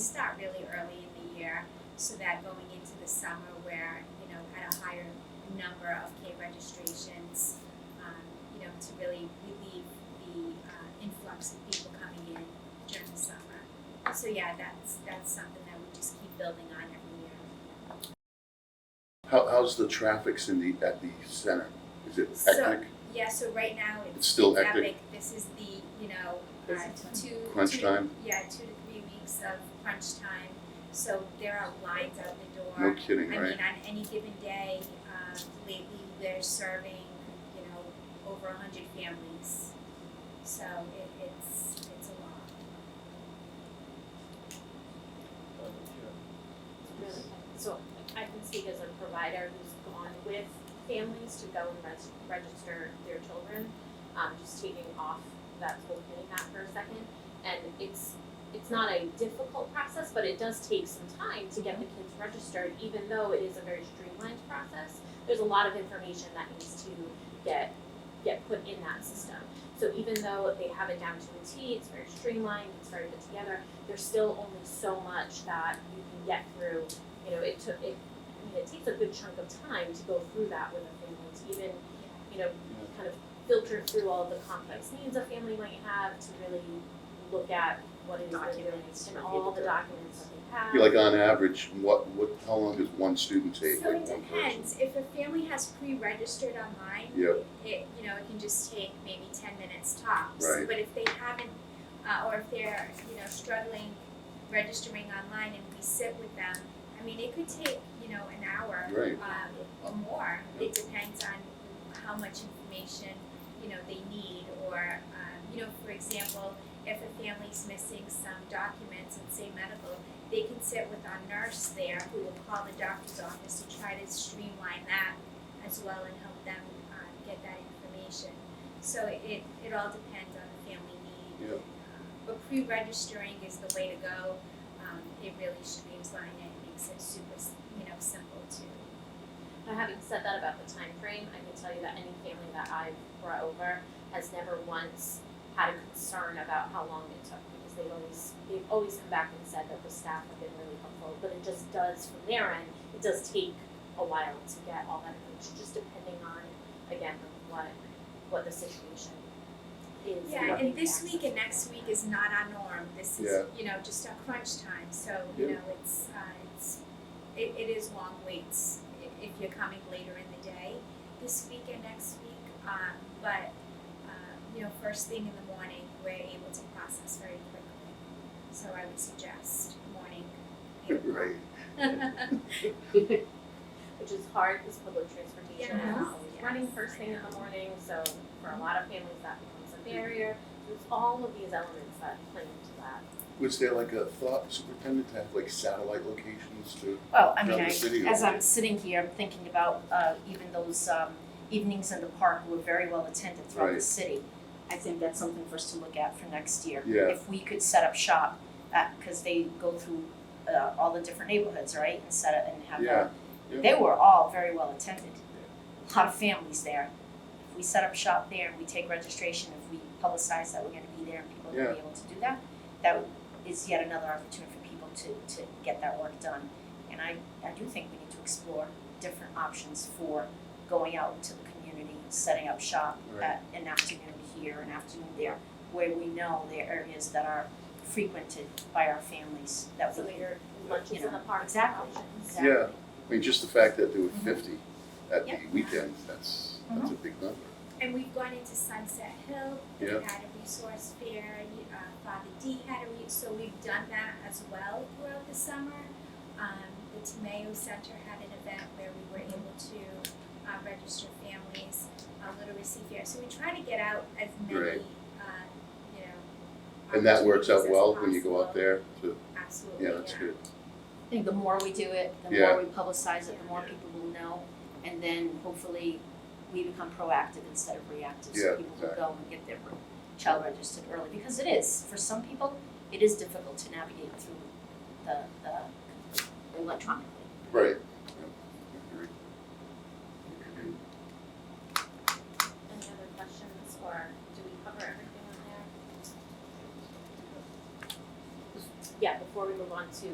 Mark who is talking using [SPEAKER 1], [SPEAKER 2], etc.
[SPEAKER 1] start really early in the year so that going into the summer where, you know, had a higher number of K registrations, um, you know, to really relieve the uh, influx of people coming in during the summer. So yeah, that's that's something that we just keep building on every year.
[SPEAKER 2] How, how's the traffic, Cindy, at the center? Is it
[SPEAKER 1] So-
[SPEAKER 2] hectic?
[SPEAKER 1] Yeah, so right now
[SPEAKER 2] It's
[SPEAKER 1] it's
[SPEAKER 2] still
[SPEAKER 1] it's
[SPEAKER 2] hectic?
[SPEAKER 1] epic. This is the, you know, uh,
[SPEAKER 3] Busy time.
[SPEAKER 1] two.
[SPEAKER 2] Crunch
[SPEAKER 1] two-
[SPEAKER 2] time?
[SPEAKER 1] Yeah, two to three weeks of crunch time. So there are lines out the door.
[SPEAKER 2] No kidding,
[SPEAKER 1] I mean,
[SPEAKER 2] right?
[SPEAKER 1] on any given day, um, lately they're serving, you know, over a hundred families. So it, it's, it's a lot.
[SPEAKER 3] So I can speak as a provider who's gone with families to go and res- register their children. Um, just taking off that whole hitting that for a second. And it's, it's not a difficult process, but it does take some time to get the kids registered, even though it is a very streamlined process. There's a lot of information that needs to get, get put in that system. So even though they have it down to a T, it's very streamlined, it's very put together, there's still only so much that you can get through. You know, it took it. I mean, it takes a good chunk of time to go through that with a family to even, you know, kind of filter through all of the complex needs a family might have to really look at what it is they're doing
[SPEAKER 4] Documents,
[SPEAKER 3] and
[SPEAKER 4] for
[SPEAKER 3] all
[SPEAKER 4] people
[SPEAKER 3] the
[SPEAKER 4] to-
[SPEAKER 3] documents that they have.
[SPEAKER 2] You're like on average, what, what, how long does one student take?
[SPEAKER 1] So
[SPEAKER 2] Like
[SPEAKER 1] it
[SPEAKER 2] one person?
[SPEAKER 1] depends, if a family has pre-registered online,
[SPEAKER 2] Yeah.
[SPEAKER 1] it, you know, it can just take maybe ten minutes tops.
[SPEAKER 2] Right.
[SPEAKER 1] But if they haven't, uh, or if they're, you know, struggling registering online and we sit with them, I mean, it could take, you know, an hour.
[SPEAKER 2] Right.
[SPEAKER 1] um, or more, it depends on how much information, you know, they need, or, um, you know, for example, if a family's missing some documents and say medical, they can sit with our nurse there who will call the doctor's office to try to streamline that as well and help them um, get that information. So it, it all depends on the family need.
[SPEAKER 2] Yeah.
[SPEAKER 1] Um, But pre-registering is the way to go. Um, It really streamlines it, and makes it super, s- you know, simple to.
[SPEAKER 3] Now, having said that about the time frame, I can tell you that any family that I've brought over has never once had a concern about how long it took because they've always they've always come back and said that the staff have been really helpful. But it just does from their end, it does take a while to get all that information, just depending on again what what the situation is.
[SPEAKER 1] Yeah, and this
[SPEAKER 3] access.
[SPEAKER 1] week and next week is not our norm. This
[SPEAKER 2] Yeah.
[SPEAKER 1] is, you know, just our crunch time, so, you
[SPEAKER 2] Yeah.
[SPEAKER 1] know, it's, uh, it's, it, it is long waits i- if you're coming later in the day, this week and next week. Um, but, um, you know, first thing in the morning, we're able to process very quickly. So I would suggest morning. eight o'clock.
[SPEAKER 2] Right.
[SPEAKER 3] which is hard because public transportation is
[SPEAKER 1] Yes.
[SPEAKER 3] not always running first thing in the morning, so for a lot of families that becomes a barrier. There's all of these elements that play into that.
[SPEAKER 2] Was there like a thought, superintendent, to have like satellite locations to,
[SPEAKER 4] Well, I mean,
[SPEAKER 2] Another
[SPEAKER 4] I,
[SPEAKER 2] city or-
[SPEAKER 4] as I'm sitting here, I'm thinking about, uh, even those, um, evenings in the park were very well attended throughout the
[SPEAKER 2] Right.
[SPEAKER 4] city. I think that's something for us to look at for next year.
[SPEAKER 2] Yeah.
[SPEAKER 4] If we could set up shop, uh, cause they go through, uh, all the different neighborhoods, right, and set up and have
[SPEAKER 2] yeah,
[SPEAKER 4] a, they were all very well attended. A Lot of families there. If we set up shop there and we take registration, if we publicize that we're gonna be there and people are gonna be able to do that, that is yet another opportunity for people to, to get that work done. And I, I do think we need to explore different options for going out into the community, setting up shop
[SPEAKER 2] Right.
[SPEAKER 4] at an afternoon here, an afternoon there, where we know there are areas that are frequented by our families that
[SPEAKER 3] So
[SPEAKER 4] we,
[SPEAKER 3] your lunches in the park
[SPEAKER 4] Exactly.
[SPEAKER 3] options.
[SPEAKER 4] exactly.
[SPEAKER 2] Yeah. I mean, just the fact that there were
[SPEAKER 1] Mm-hmm.
[SPEAKER 4] Mhm.
[SPEAKER 2] fifty at the
[SPEAKER 4] Yeah.
[SPEAKER 2] weekend, that's, that's a big number.
[SPEAKER 1] And we've gone into Sunset Hill, we
[SPEAKER 2] Yeah.
[SPEAKER 1] have had a resource fair, you- uh, Father D had a re, so we've done that as well throughout the summer. Um, the Tomeo Center had an event where we were able to, uh, register families, uh, Little Receive Fair, so we try to get out as many,
[SPEAKER 2] Right.
[SPEAKER 1] uh, you know.
[SPEAKER 2] And that works out
[SPEAKER 1] opportunities as
[SPEAKER 2] well when you go out
[SPEAKER 1] possible.
[SPEAKER 2] there to,
[SPEAKER 1] Absolutely,
[SPEAKER 2] yeah, that's good.
[SPEAKER 4] I think the more we do it, the
[SPEAKER 2] Yeah.
[SPEAKER 4] more we publicize it, the more people will know. And then hopefully we become proactive instead of reactive,
[SPEAKER 2] Yeah,
[SPEAKER 4] so people will
[SPEAKER 2] exactly.
[SPEAKER 4] go and get their child registered early. Because it is, for some people, it is difficult to navigate through the, the electronically.
[SPEAKER 2] Right.
[SPEAKER 3] Any other questions or do we cover everything on there? yeah, before we move on to